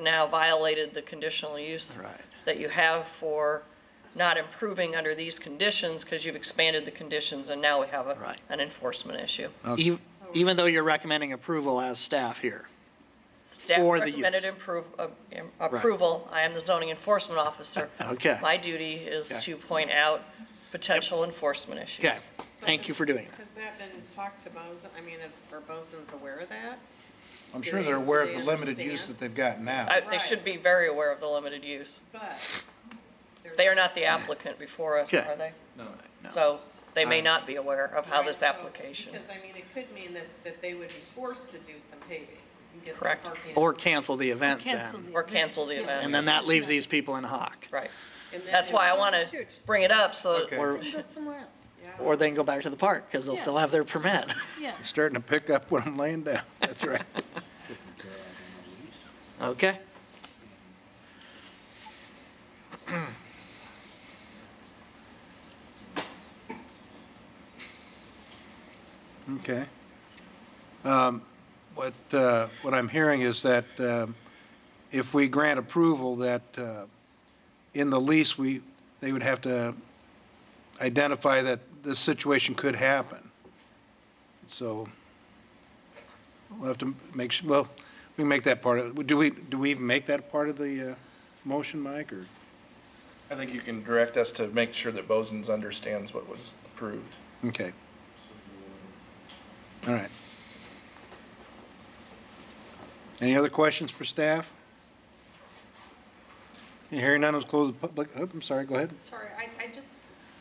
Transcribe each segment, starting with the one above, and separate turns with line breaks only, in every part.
now violated the conditional use
Right.
that you have for not improving under these conditions because you've expanded the conditions and now we have a,
Right.
an enforcement issue.
Ev- Even though you're recommending approval as staff here.
Staff
For the
recommended
use.
improve, uh, im- approval. I am the zoning enforcement officer.
Okay.
My duty is
Okay.
to point out potential enforcement issues.
Okay, thank you for doing that.
Has that been talked to Bozen, I mean, if- are Bozen's aware of that?
I'm
Do
sure
they-
they're aware
do
of
they
the limited use
understand?
that they've got now.
I- They should be very aware of the limited use.
But.
They are not the applicant before us,
Okay.
are they?
No.
So they may not be aware of how this
Right, so-
application.
Because, I mean, it could mean that, that they would be forced to do some paving. and get some
Correct.
parking.
Or cancel the event then.
Or cancel the event.
And then that leaves these people in hock.
Right.
And then
That's
they
why I
would-
want to bring it up so that
Okay.
Or,
Go somewhere else,
Yeah.
or they can go back to the park because they'll still have their permit.
yeah.
Starting to pick up what I'm laying down. That's right.
Okay?
Okay. Um, What, uh, what I'm hearing is that um, if we grant approval, that uh, in the lease, we, they would have to identify that this situation could happen. So we'll have to make, su- well, we can make that part of, do we, do we even make that part of the uh, motion, Mike, or?
I think you can direct us to make sure that Bozens understands what was approved.
Okay. All right. Any other questions for staff? Hearing none, let's close the public, oh, I'm sorry, go ahead.
Sorry, I, I just,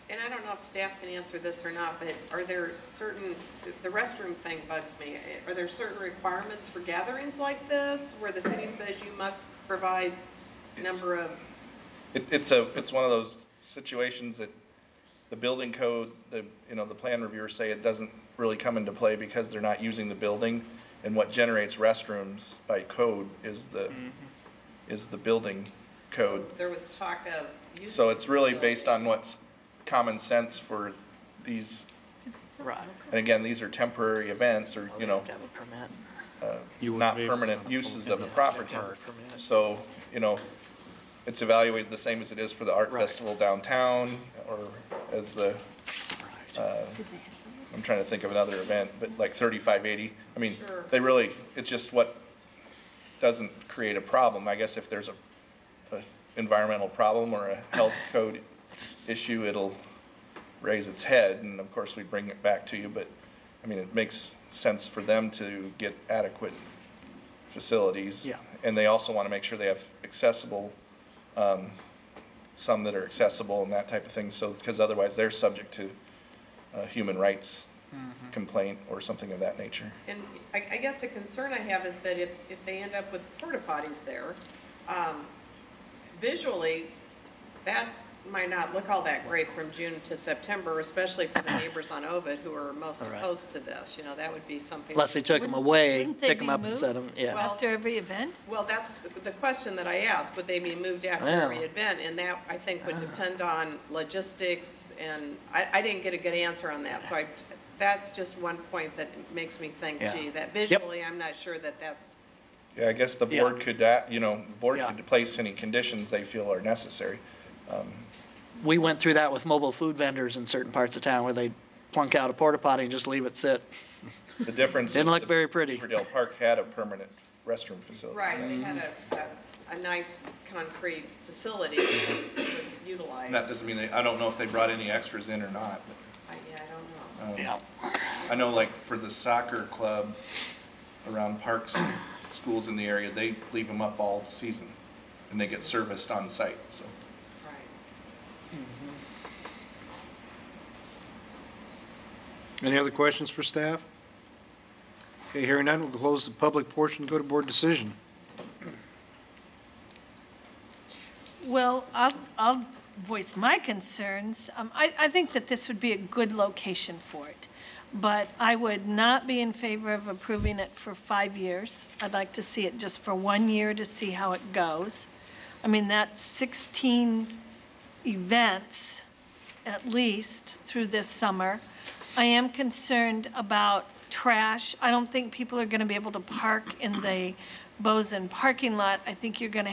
and I don't know if staff can answer this or not, but are there certain, the restroom thing bugs me. Eh, Are there certain requirements for gatherings like this where the city says you must provide number of,
It, it's a, it's one of those situations that the building code, the, you know, the plan reviewers say it doesn't really come into play because they're not using the building. And what generates restrooms by code is the, is the building code.
there was talk of. using
So it's really
the
based
building.
on what's common sense for these,
Right.
and again, these are temporary events or, you know,
Have to have a permit.
not permanent uses of the property. So, you know, it's evaluated the same as it is for the art
Right.
festival downtown or as the, uh, I'm trying to think of another event, but like 3580. I mean,
Sure.
they really, it's just what doesn't create a problem. I guess if there's a, a environmental problem or a health code issue, it'll raise its head. And of course, we bring it back to you, but I mean, it makes sense for them to get adequate facilities.
Yeah.
And they also want to make sure they have accessible, um, some that are accessible and that type of thing. So, because otherwise they're subject to a human rights
Mm-hmm.
complaint or something of that nature.
And I, I guess the concern I have is that if, if they end up with porta potties there, um, visually, that might not look all that great from June to September, especially for the neighbors on Ovid who are most
All right.
opposed to this, you know, that would be something.
Unless they took them
Wouldn't-
away,
wouldn't they
pick them
be
up and
moved?
set them, yeah.
Well-
After every event?
Well, that's the- the question that I asked, would they be moved after
Yeah.
every event? And that, I think, would depend on logistics, and I, I didn't get a good answer on that, so I, that's just one point that makes me think,
Yeah.
gee,
Yep.
that visually, I'm not sure that that's,
Yeah, I guess the
Yeah.
board could, act- you know, the board
Yeah.
could place any conditions they feel are necessary.
we went through that with mobile food vendors in certain parts of town where they plunk out a porta potty and just leave it sit.
The difference. is
Didn't look
that
very pretty.
Beaverdale Park had a permanent restroom facility.
right, they had a, a- a nice concrete facility that was
And
utilized.
That doesn't mean, they- I don't know if they brought any extras in or not, but.
I, yeah, I don't know.
Yeah.
I know like for the soccer club around parks and schools in the area, they leave them up all season and they get serviced on site, so.
Right.
Any other questions for staff? Okay, hearing none, we'll close the public portion, go to board decision.
Well, I'll, I'll voice my concerns. Um, I, I think that this would be a good location for it, but I would not be in favor of approving it for five years. I'd like to see it just for one year to see how it goes. I mean, that's 16 events, at least, through this summer. I am concerned about trash. I don't think people are going to be able to park in the Bozen parking lot, I think you're going to